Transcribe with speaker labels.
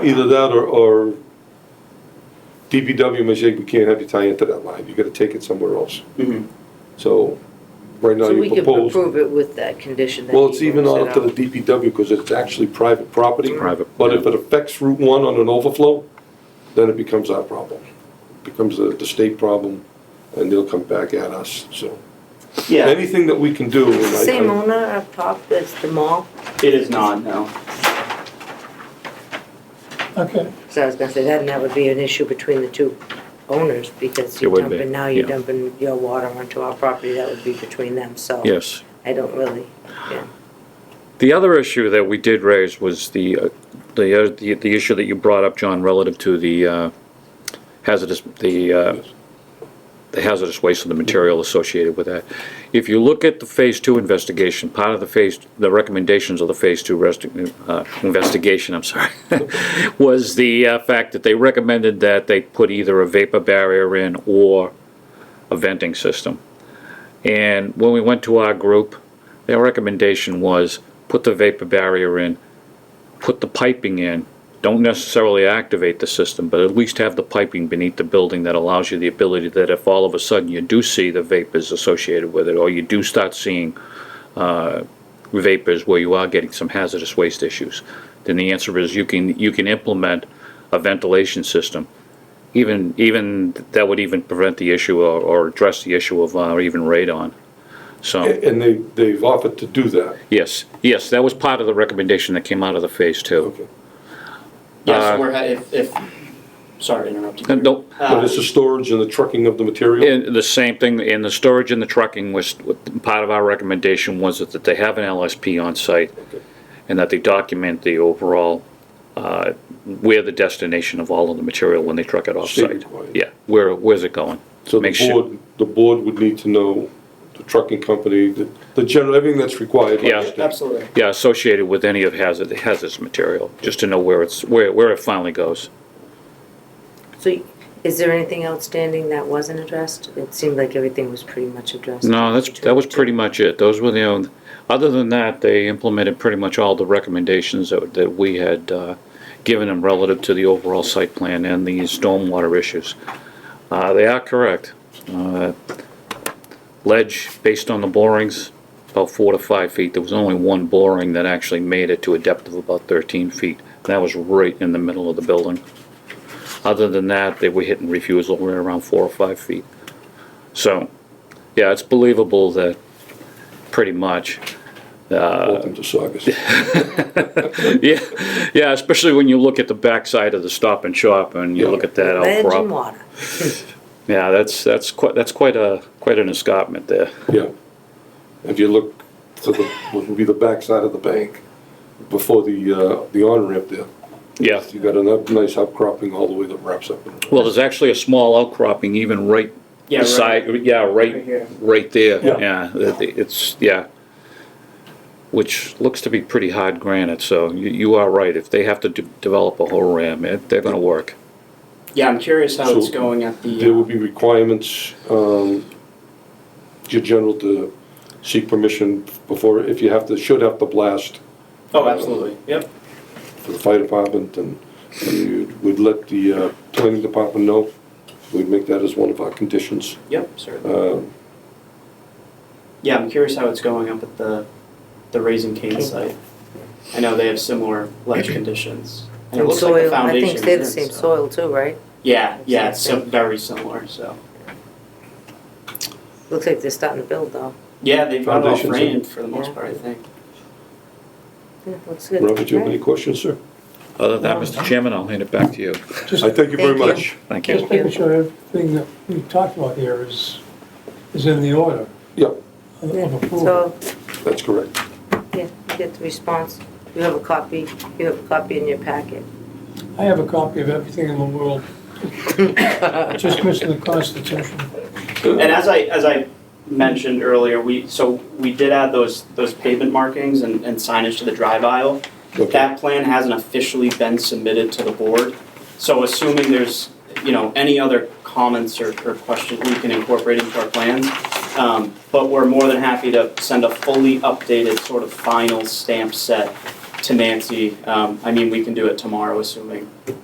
Speaker 1: Either that or, or DPW may say, we can't have you tie into that line, you gotta take it somewhere else.
Speaker 2: Mhm.
Speaker 1: So, right now
Speaker 3: So we
Speaker 1: you
Speaker 3: could
Speaker 1: propose,
Speaker 3: approve it with that condition that
Speaker 1: well, it's
Speaker 3: he
Speaker 1: even
Speaker 3: works
Speaker 1: on
Speaker 3: it
Speaker 1: up to the
Speaker 3: out.
Speaker 1: DPW, because it's actually private property.
Speaker 2: Private,
Speaker 1: But
Speaker 2: yeah.
Speaker 1: if it affects Route One on an overflow, then it becomes our problem. Becomes the, the state problem, and they'll come back at us, so.
Speaker 2: Yeah,
Speaker 1: Anything that we can do. and I-
Speaker 3: Same
Speaker 1: I-
Speaker 3: owner of Pop as the mall,
Speaker 2: it is not, no.
Speaker 4: Okay,
Speaker 3: so I was gonna say, then that would be an issue between the two owners, because
Speaker 5: It
Speaker 3: you're
Speaker 5: would be,
Speaker 3: dumping, now you're
Speaker 5: yeah.
Speaker 3: dumping your water onto our property, that would be between them, so.
Speaker 5: Yes.
Speaker 3: I don't really, yeah.
Speaker 5: The other issue that we did raise was the, uh, the, uh, the the issue that you brought up, John, relative to the uh, hazardous, the, uh, the hazardous waste and the material associated with that. If you look at the Phase Two investigation, part of the Phase, the recommendations of the Phase Two rest- uh, investigation, I'm sorry, was the uh, fact that they recommended that they put either a vapor barrier in or a venting system. And when we went to our group, their recommendation was put the vapor barrier in, put the piping in. Don't necessarily activate the system, but at least have the piping beneath the building that allows you the ability that if all of a sudden you do see the vapors associated with it, or you do start seeing uh, vapors where you are getting some hazardous waste issues, then the answer is you can you can implement a ventilation system even even that would even prevent the issue or, or address the issue of uh, even radon. So
Speaker 1: And they, they've offered to do that.
Speaker 5: yes, yes, that was part of the recommendation that came out of the phase two.
Speaker 1: Okay.
Speaker 2: Yeah,
Speaker 5: Uh,
Speaker 2: so we're, ha- if, if, sorry to interrupt you.
Speaker 5: And don't-
Speaker 2: Uh,
Speaker 1: But it's the storage and the trucking of the material.
Speaker 5: And the same thing in the storage and the trucking was part of our recommendation was that they have an LSP on site and that they document the overall uh, where the destination of all of the material when they truck it off
Speaker 1: State
Speaker 5: site.
Speaker 1: required.
Speaker 5: Yeah, where where's it going?
Speaker 1: So the
Speaker 5: Make sure-
Speaker 1: board, the board would need to know the trucking company, the, the general, everything that's required. by the
Speaker 5: Yeah.
Speaker 1: state.
Speaker 2: Absolutely.
Speaker 5: Yeah, associated with any of hazard, hazardous material, just to know where it's, where, where it finally goes.
Speaker 3: So is there anything outstanding that wasn't addressed? It seemed like everything was pretty much addressed.
Speaker 5: No, that's, that was pretty much it. Those were the, only- other than that, they implemented pretty much all the recommendations that, that we had, uh, given them relative to the overall site plan and the stormwater issues. Uh, they are correct. Uh, Ledge, based on the borings, about four to five feet. There was only one boring that actually made it to a depth of about thirteen feet. That was right in the middle of the building. Other than that, they were hitting refusal right around four or five feet. So, yeah, it's believable that, pretty much.
Speaker 1: Welcome to Saugus.
Speaker 5: Yeah, yeah, especially when you look at the backside of the stop and shop and you look at that
Speaker 3: Ledge and
Speaker 5: outcrop.
Speaker 3: water.
Speaker 5: Yeah, that's, that's quite, that's quite a, quite an escarpment there.
Speaker 1: Yeah. If you look to the, what would be the backside of the bank, before the, uh, the on-ramp there,
Speaker 5: Yeah.
Speaker 1: you got a ni- nice outcropping all the way that wraps up. in the-
Speaker 5: Well, there's actually a small outcropping even right
Speaker 2: Yeah, right.
Speaker 5: beside, yeah,
Speaker 2: Right
Speaker 5: right,
Speaker 2: here.
Speaker 5: right there,
Speaker 1: Yeah.
Speaker 5: yeah, that the- it's, yeah. Which looks to be pretty hard granite, so you, you are right, if they have to de- develop a whole ram, it- they're gonna work.
Speaker 2: Yeah, I'm curious how
Speaker 1: So
Speaker 2: it's going at
Speaker 1: There will
Speaker 2: the,
Speaker 1: be requirements, um, your general to seek permission before, if you have to, should have to blast
Speaker 2: oh, absolutely, yep.
Speaker 1: for the fire department, and we would let the uh, planning department know. We'd make that as one of our conditions.
Speaker 2: Yep, certainly.
Speaker 1: Um,
Speaker 2: Yeah, I'm curious how it's going up at the, the Raising Cane site. I know they have similar ledge conditions. And it
Speaker 3: And
Speaker 2: looks like the
Speaker 3: soil, I
Speaker 2: foundation.
Speaker 3: think they're the same
Speaker 2: so-
Speaker 3: soil too, right?
Speaker 2: Yeah, yeah, it's
Speaker 3: Same
Speaker 2: so-
Speaker 3: thing.
Speaker 2: very similar, so.
Speaker 3: Looks like they're starting to build though.
Speaker 2: Yeah, they've got it all
Speaker 1: Foundations are-
Speaker 2: framed for the most
Speaker 3: Yeah.
Speaker 2: part, I think.
Speaker 3: Yeah, looks good.
Speaker 1: Robert, do you have any
Speaker 3: Right.
Speaker 1: questions, sir?
Speaker 5: Other than that, Mr. Chairman, I'll hand it back to you.
Speaker 4: just,
Speaker 1: I thank you very
Speaker 3: Thank you.
Speaker 1: much.
Speaker 5: Thank you.
Speaker 4: just making sure everything that we talked about here is, is in the order
Speaker 1: Yeah,
Speaker 4: of
Speaker 3: Yeah,
Speaker 4: of approval.
Speaker 3: so,
Speaker 1: that's correct.
Speaker 3: yeah, you get the response. You have a copy, you have a copy in your packet.
Speaker 4: I have a copy of everything in the world. Just missing the Constitution.
Speaker 2: And as I, as I mentioned earlier, we, so we did add those, those pavement markings and and signage to the drive aisle.
Speaker 1: Okay.
Speaker 2: That plan hasn't officially been submitted to the board, so assuming there's, you know, any other comments or, or questions, we can incorporate into our plans. Um, but we're more than happy to send a fully updated sort of final stamp set to Nancy. Um, I mean, we can do it tomorrow, assuming